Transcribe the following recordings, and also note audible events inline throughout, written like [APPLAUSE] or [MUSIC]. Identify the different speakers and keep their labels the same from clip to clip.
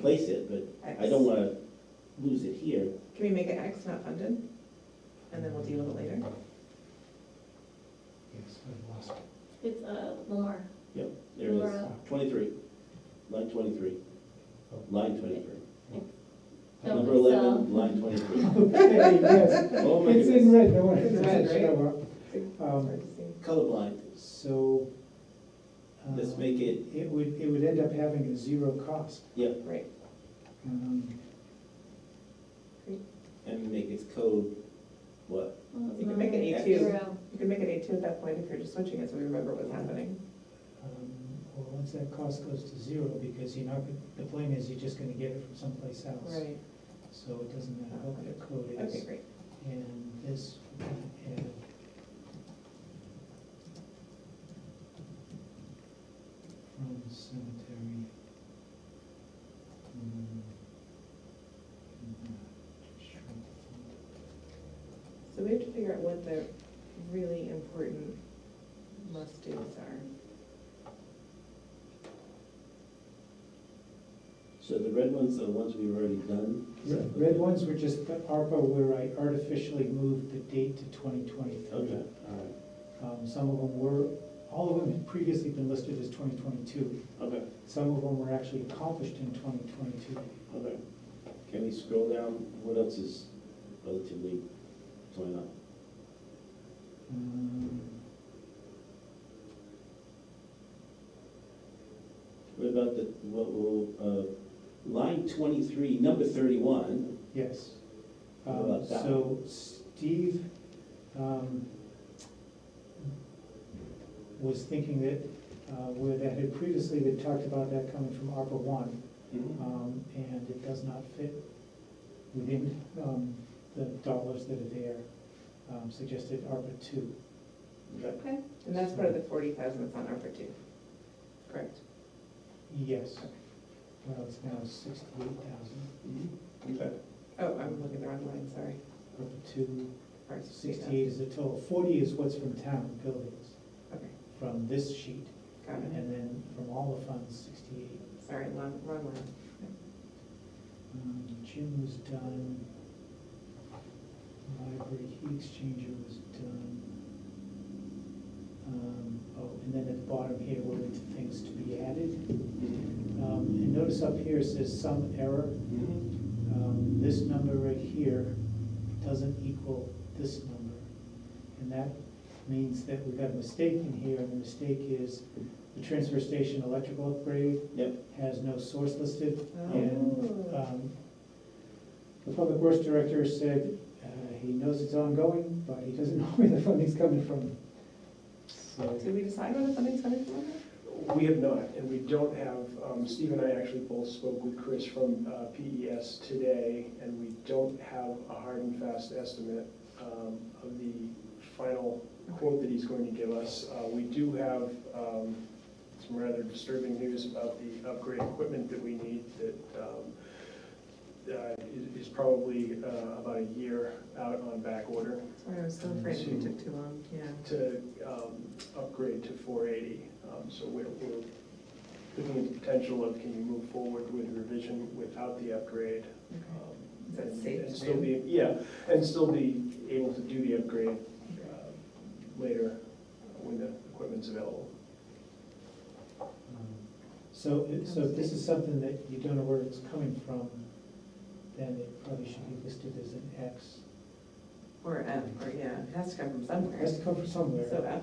Speaker 1: place it, but
Speaker 2: X.
Speaker 1: I don't wanna lose it here.
Speaker 2: Can we make it X not funded? And then we'll deal with it later?
Speaker 3: Yes, I lost it.
Speaker 4: It's uh, Lamar.
Speaker 1: Yep, there it is,
Speaker 4: Laura.
Speaker 1: twenty-three, line twenty-three,
Speaker 3: Oh.
Speaker 1: line twenty-three.
Speaker 4: No,
Speaker 1: Number
Speaker 4: it's, uh,
Speaker 1: eleven, line
Speaker 3: [LAUGHS]
Speaker 1: twenty-three.
Speaker 3: Okay, yes,
Speaker 1: Oh my
Speaker 3: it's in
Speaker 1: goodness,
Speaker 3: red, no worries.
Speaker 2: It's red, right?
Speaker 3: Um,
Speaker 2: Hard to see.
Speaker 1: colorblind,
Speaker 3: So. uh,
Speaker 1: let's make it,
Speaker 3: It would, it would end up having a zero cost.
Speaker 1: yeah,
Speaker 2: Right,
Speaker 3: Um,
Speaker 1: and make its code, what?
Speaker 4: well,
Speaker 2: You can make it E
Speaker 4: Lamar,
Speaker 2: A2.
Speaker 4: zero.
Speaker 2: you can make it A two at that point if you're just switching it so we remember what's happening.
Speaker 3: um, Well, once that cost goes to zero, because you're not, the point is, you're just gonna get it from someplace else. So it doesn't matter what the code
Speaker 2: Okay,
Speaker 3: is,
Speaker 2: great.
Speaker 3: and this, and. From cemetery. um, and, uh, shrub fund.
Speaker 2: So we have to figure out what the really important must-dos are.
Speaker 1: So the red ones are the ones we've already done.
Speaker 3: Red red ones were just the ARPA where I artificially moved the date to twenty
Speaker 1: Okay,
Speaker 3: twenty-three.
Speaker 1: all
Speaker 3: Um, some of them were, all of them had previously been listed as twenty twenty-two.
Speaker 1: right, okay,
Speaker 3: Some of them were actually accomplished in twenty twenty-two.
Speaker 1: okay. Can we scroll down, what else is relatively going on?
Speaker 3: Hmm.
Speaker 1: What about the, what, will, uh, line twenty-three, number thirty-one,
Speaker 3: Yes.
Speaker 1: What
Speaker 3: Um,
Speaker 1: about that
Speaker 3: So Steve um, was thinking that, uh, where that had previously, they talked about that coming from ARPA one. um, and it does not fit within um, the dollars that are there, um, suggested ARPA two.
Speaker 1: Okay.
Speaker 4: Okay,
Speaker 2: And that's part of the forty thousand that's on ARPA two. Correct.
Speaker 3: Yes. Well, it's now sixty-eight thousand,
Speaker 1: Okay.
Speaker 2: Oh, I'm looking the wrong line, sorry.
Speaker 3: ARPA two,
Speaker 2: Ours is 60,000.
Speaker 3: sixty-eight is the total, forty is what's from town buildings,
Speaker 2: Okay,
Speaker 3: from this sheet,
Speaker 2: got it.
Speaker 3: and then from all the funds, sixty-eight.
Speaker 2: Sorry, wrong, wrong line.
Speaker 3: Um, Gym was done, library heat exchanger was done. Um, Oh, and then at the bottom here, we're into things to be added. Um, And notice up here it says some error. Um, This number right here doesn't equal this number. And that means that we've got a mistake in here, and the mistake is the transfer station electrical upgrade
Speaker 1: Yep,
Speaker 3: has no source listed, and
Speaker 2: Oh,
Speaker 3: um, the public works director said uh, he knows it's ongoing, but he doesn't [LAUGHS] know where the funding's coming from. So,
Speaker 2: Did we decide where the funding's coming from?
Speaker 5: We have not, and we don't have, um, Steve and I actually both spoke with Chris from uh, PES today, and we don't have a hard and fast estimate um, of the final quote that he's going to give us. Uh, We do have um, some rather disturbing news about the upgrade equipment that we need that um, uh, is- is probably uh, about a year out on back order
Speaker 2: Sorry, I was so afraid we took too long, yeah.
Speaker 5: to um, upgrade to 480. Um, So we're we're looking at the potential of can you move forward with revision without the upgrade?
Speaker 2: Okay.
Speaker 5: um,
Speaker 2: Is that
Speaker 5: and-
Speaker 2: safe
Speaker 5: And
Speaker 2: to
Speaker 5: still
Speaker 2: do?
Speaker 5: be, yeah, and still be able to do the upgrade uh, later when the equipment's available.
Speaker 3: um, So, it- so if this is something that you don't know where it's coming from, then it probably should be listed as an X.
Speaker 2: Or F, or yeah, it has to come from
Speaker 3: It
Speaker 2: somewhere.
Speaker 3: has to come from
Speaker 2: So
Speaker 3: somewhere.
Speaker 2: F,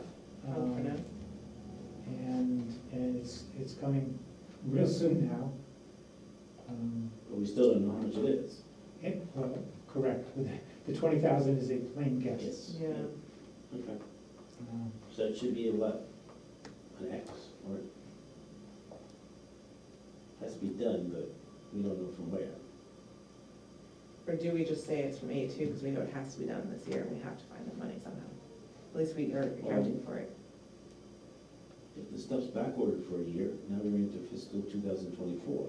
Speaker 2: I'll
Speaker 3: um,
Speaker 2: pronounce.
Speaker 3: And, and it's, it's coming real soon now. Um,
Speaker 1: but we still don't know how much it is.
Speaker 3: it- well, Correct, [LAUGHS] the twenty thousand is a plain guess.
Speaker 2: Yeah,
Speaker 1: Okay,
Speaker 3: Um,
Speaker 1: so it should be a what? An X, or? Has to be done, but we don't know from where.
Speaker 2: or do we just say it's from A two, because we know it has to be done this year, and we have to find the money somehow? At least we are accounting for it.
Speaker 1: If the stuff's backordered for a year, now we're into fiscal two thousand twenty-four.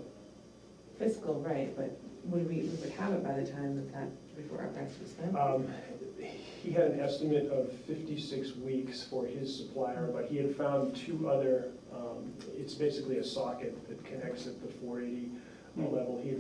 Speaker 2: Fiscal, right, but would we, we would have it by the time that that, before our tax was spent?
Speaker 3: Uh,
Speaker 5: Um, He had an estimate of 56 weeks for his supplier, but he had found two other, um, it's basically a socket that connects at the 480 level here